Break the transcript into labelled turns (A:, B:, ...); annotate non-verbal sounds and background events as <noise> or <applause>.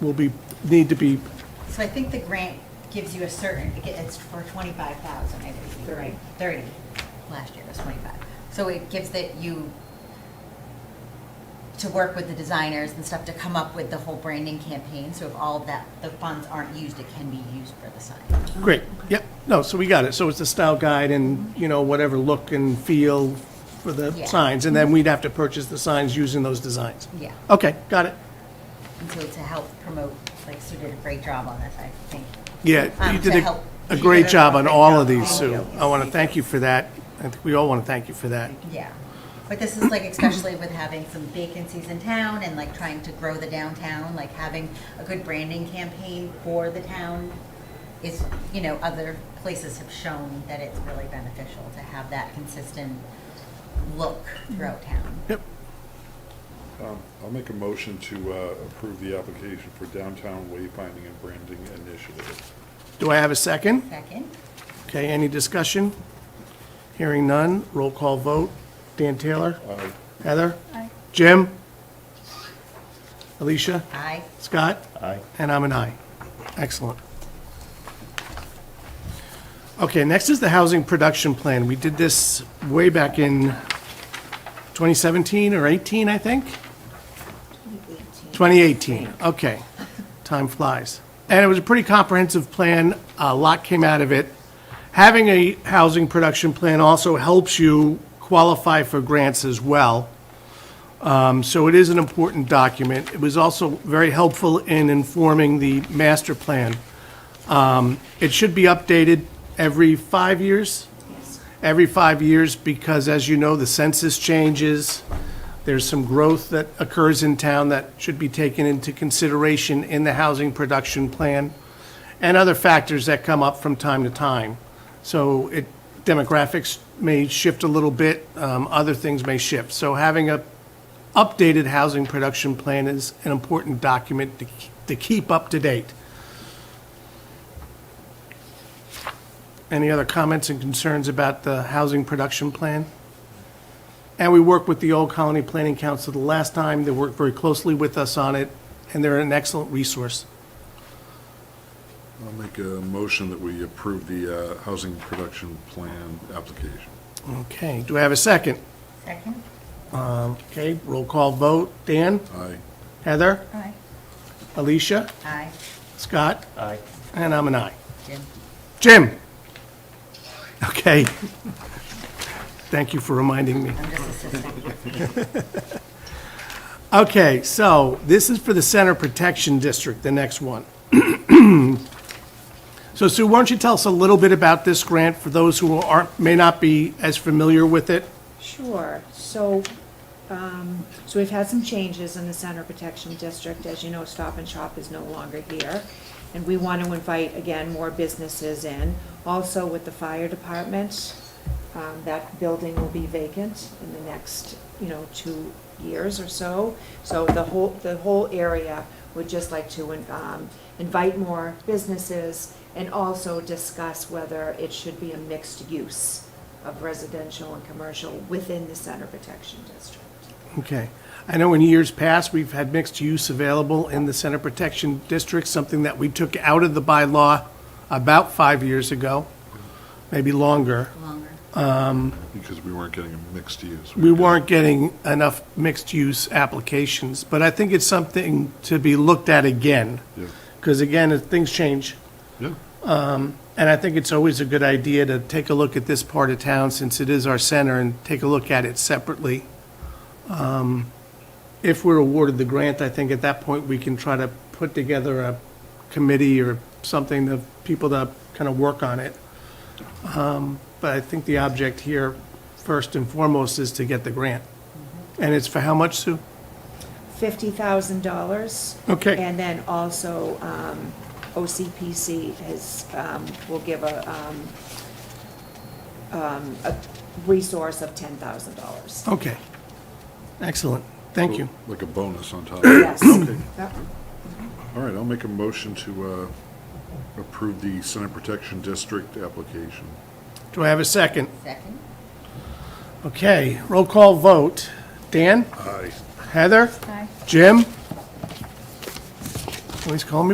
A: will be, need to be,
B: So I think the grant gives you a certain, it's for twenty-five thousand, I think, you're right, thirty, last year was twenty-five. So it gives that you, to work with the designers and stuff to come up with the whole branding campaign, so if all of that, the funds aren't used, it can be used for the sign.
A: great, yep, no, so we got it. So it's the style guide and, you know, whatever look and feel for the
B: Yeah.
A: signs, and then we'd have to purchase the signs using those designs.
B: Yeah.
A: Okay, got it.
B: And so to help promote, like Sue did a great job on this, I think.
A: Yeah,
B: Um,
A: you
B: to
A: did a,
B: help-
A: a
B: you
A: great
B: did a
A: job on
B: great
A: all
B: job.
A: of these,
B: Thank
A: Sue.
B: you.
A: I want to thank you for that. I think we all want to thank you for that.
B: Yeah, but this is like especially with having some vacancies in town and like trying to grow the downtown, like having a good branding campaign for the town is, you know, other places have shown that it's really beneficial to have that consistent look
C: Mm-hmm.
B: throughout town.
A: Yep,
C: Um, I'll make a motion to uh, approve the application for downtown wayfinding and branding initiative.
A: do I have a second?
B: Second,
A: Okay, any discussion? Hearing none, roll call vote. Dan Taylor?
C: Aye.
A: Heather? Jim? Alicia?
B: aye.
A: Scott?
C: Aye.
A: And I'm an aye. Excellent. Okay, next is the Housing Production Plan. We did this way back in 2017 or 18, I think? 2018, okay. Time flies. And it was a pretty comprehensive plan, a lot came out of it. Having a housing production plan also helps you qualify for grants as well. Um, So it is an important document. It was also very helpful in informing the master plan. Um, It should be updated every five years? Every five years, because as you know, the census changes. There's some growth that occurs in town that should be taken into consideration in the housing production plan and other factors that come up from time to time. So it, demographics may shift a little bit, um, other things may shift. So having a updated housing production plan is an important document to, k- to keep up to date. Any other comments and concerns about the housing production plan? And we worked with the Old Colony Planning Council the last time, they worked very closely with us on it, and they're an excellent resource.
C: I'll make a motion that we approve the uh, housing production plan application.
A: Okay, do I have a second?
B: Second,
A: Okay, roll call vote, Dan,
C: Aye.
A: Heather,
B: aye.
A: Alicia,
B: Aye,
A: Scott,
D: Aye.
A: and I'm an aye.
B: Jim.
A: Jim? Okay. Thank you for reminding me.
B: I'm just assisting.
A: Okay, so this is for the Center Protection District, the next one. <clears throat> So Sue, why don't you tell us a little bit about this grant for those who aren't, may not be as familiar with it?
E: Sure, so, um, so we've had some changes in the Center Protection District, as you know, Stop and Shop is no longer here. And we want to invite, again, more businesses in, also with the fire department, um, that building will be vacant in the next, you know, two years or so. So the whole, the whole area would just like to, um, invite more businesses and also discuss whether it should be a mixed use of residential and commercial within the center protection district.
A: Okay. I know in years past, we've had mixed use available in the Center Protection District, something that we took out of the bylaw about five years ago, maybe longer.
B: Longer.
C: Because we weren't getting a mixed use.
A: We weren't getting enough mixed-use applications, but I think it's something to be looked at again.
C: Yeah.
A: Because again, if things change,
C: Yeah,
A: and I think it's always a good idea to take a look at this part of town, since it is our center, and take a look at it separately. Um, If we're awarded the grant, I think at that point, we can try to put together a committee or something, of people to kind of work on it. Um, But I think the object here, first and foremost, is to get the grant. And it's for how much, Sue?
E: Fifty thousand dollars.
A: Okay.
E: And then also, um, OCPC has, um, will give a, um, um, a resource of ten
A: <clears throat>
E: thousand dollars.
A: Okay. Excellent. Thank you.
C: like a bonus on top. All
E: Yes. Yep.
C: right, I'll make a motion to uh, approve the center protection district application.
A: Do I have a second?
B: Second,
A: Okay, roll call vote. Dan?
C: Aye.
A: Heather? Jim? Always call me